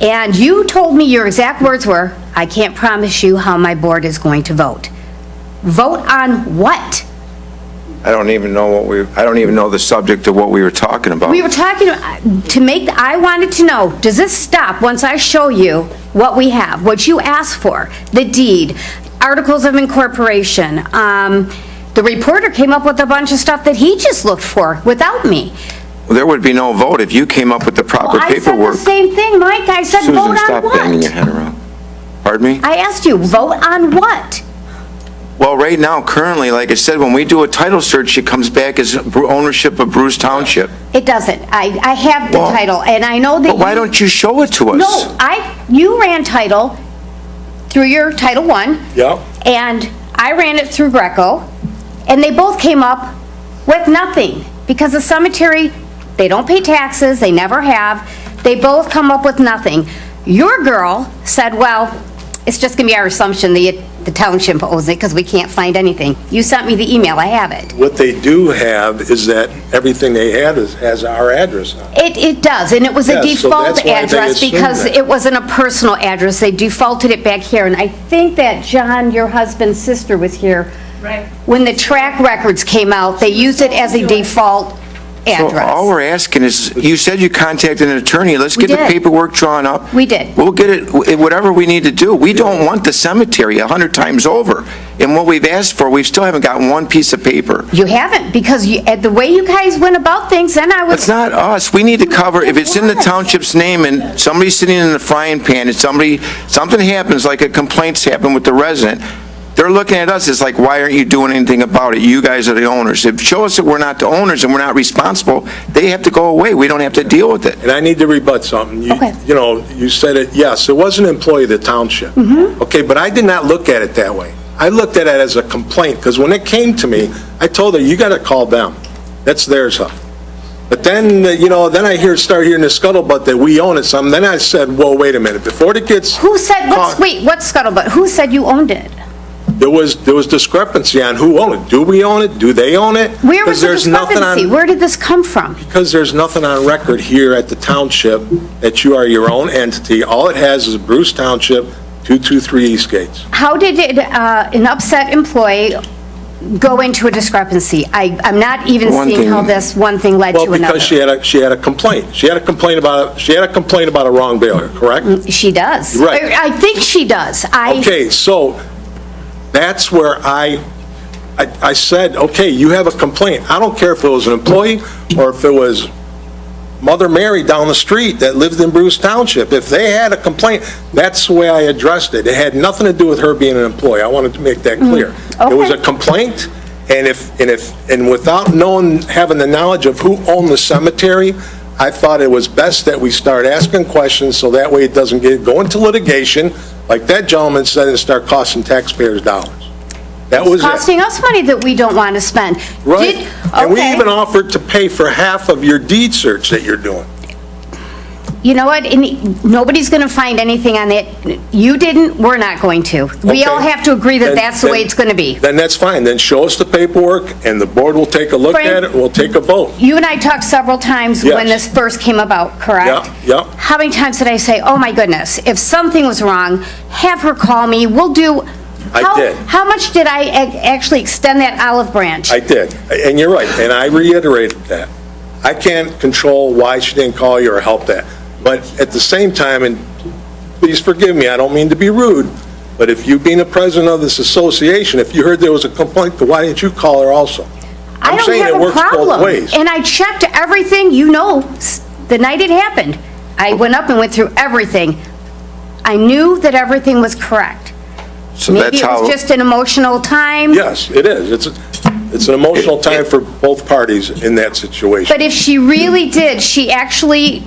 And you told me your exact words were, "I can't promise you how my board is going to vote." Vote on what? I don't even know what we, I don't even know the subject of what we were talking about. We were talking, uh, to make, I wanted to know, does this stop once I show you what we have, what you asked for, the deed, articles of incorporation? um, The reporter came up with a bunch of stuff that he just looked for without me. There would be no vote if you came up with the proper Well, I said paperwork. the same thing, Mike, I said, vote Susan, on stop banging your what? head around. Pardon me? I asked you, vote on what? Well, right now, currently, like I said, when we do a title search, it comes back as bru- ownership of Bruce Township. It doesn't, I, I have the Well, title, and I know that But why you- don't you show it to us? No, I, you ran title through your Title One. Yep. And I ran it through Greco, and they both came up with nothing, because the cemetery, they don't pay taxes, they never have, they both come up with nothing. Your girl said, well, it's just gonna be our assumption that the township owes it, because we can't find anything. You sent me the email, I have it. What they do have is that everything they had is, has our address on it. It, it does, and it was a Yeah, so default that's why they address assumed because that. it wasn't a personal address. They defaulted it back here, and I think that John, your husband's sister, was here. Right. When the track records came out, they used it as a default So all address. we're asking is, you said you contacted an attorney, let's We get the did. paperwork drawn up. We did. We'll get it, wh- whatever we need to do. We don't want the cemetery a 100 times over. And what we've asked for, we still haven't gotten one piece of paper. You haven't, because you, at the way you guys went about things, then I It's was, not us, we need to cover, if it's in the It was. township's name and somebody's sitting in the frying pan and somebody, something happens, like a complaint's happened with the resident, they're looking at us, it's like, why aren't you doing anything about it? You guys are the owners. If, show us that we're not the owners and we're not responsible, they have to go away, we don't have to deal with it. And I need to rebut something. You- Okay. You know, you said it, yes, it was an employee of the township. Mm-hmm. Okay, but I did not look at it that way. I looked at it as a complaint, because when it came to me, I told her, you gotta call them. That's their stuff. But then, you know, then I hear, start hearing the scuttlebutt that we own it some, then I said, whoa, wait a minute, before it gets. who said, what's, caught- wait, what's scuttlebutt? Who said you owned it? There was, there was discrepancy on who owned it. Do we own it? Do they own it? Where was 'Cause the there's nothing on- discrepancy? Where did this come from? Because there's nothing on record here at the township that you are your own entity. All it has is Bruce Township, 223 East Gates. How did it, uh, an upset employee go into a discrepancy? I, I'm not even One seeing how thing- this one thing led to Well, another. because she had a, she had a complaint. She had a complaint about, she had a complaint about a wrong bailer, correct? She does. Right. I I think she does. I. Okay, so that's where I, I I said, okay, you have a complaint. I don't care if it was an employee or if it was Mother Mary down the street that lived in Bruce Township. If they had a complaint, that's the way I addressed it. It had nothing to do with her being an employee. I wanted to make that clear. It was Mm-hmm. a okay. complaint, and if, and if, and without knowing, having the knowledge of who owned the cemetery, I thought it was best that we start asking questions, so that way it doesn't get, go into litigation, like that gentleman said, and start costing taxpayers dollars. That was it. Costing us money that we don't want to spend. Right? Did- And we okay. even offered to pay for half of your deed search that you're doing. You know what? And Nobody's going to find anything on that. You didn't, we're not going to. We all Okay. have to agree that Then- that's the way then- it's going to be. Then that's fine, then show us the paperwork, and the board will take a look Frank- at it, we'll take a vote. You and I talked several times when Yes. this first came about, correct? Yeah, yeah. How many times did I say, "Oh my goodness, if something was wrong, have her call me, we'll do..." I How- did. How much did I ac- actually extend that olive branch? I did, and you're right, and I reiterated that. I can't control why she didn't call you or help that, but at the same time, and please forgive me, I don't mean to be rude, but if you being the president of this association, if you heard there was a complaint, why didn't you call her also? I I'm don't saying have it a works both problem. ways. And I checked everything, you know, s- the night it happened. I went up and went through everything. I knew that everything was correct. So Maybe that's it how. was just an emotional time. Yes, it is, it's, it's an emotional time for both parties in that situation. But if she really did, she actually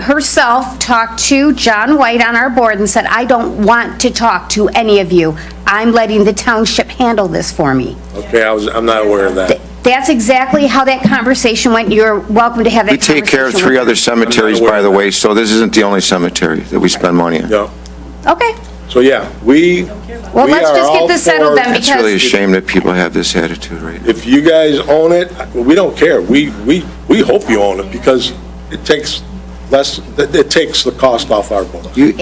herself talked to John White on our board and said, "I don't want to talk to any of you. I'm letting the township handle this for me." Okay, I was, I'm not aware of that. That's exactly how that conversation went. You're welcome to have We that conversation. take care of three with her. other cemeteries, by the way, so this isn't the only cemetery that we spend money on. Yeah. Okay. So, yeah, we. Well, we let's are just get all this settled for- then, It's because- really a shame that people have this attitude right now. If you guys own it, we don't care. We, we, we hope you own it because it takes less, it it takes the cost off our books. You,